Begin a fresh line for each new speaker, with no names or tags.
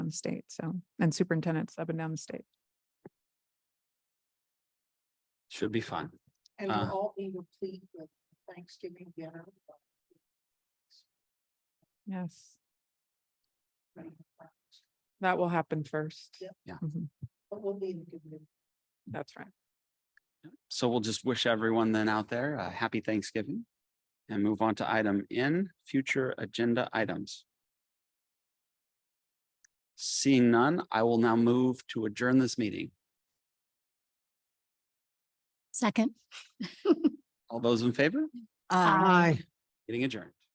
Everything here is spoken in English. the state, so, and superintendents up and down the state.
Should be fun.
And
Uh.
we'll all be replete with Thanksgiving dinner.
Yes,
But
that will happen first.
Yep.
Yeah.
Mhm,
we'll be in a good mood.
That's right.
So we'll just wish everyone then out there a happy Thanksgiving and move on to item N, future agenda items. Seeing none, I will now move to adjourn this meeting.
Second.
All those in favor,
Aye.
getting adjourned.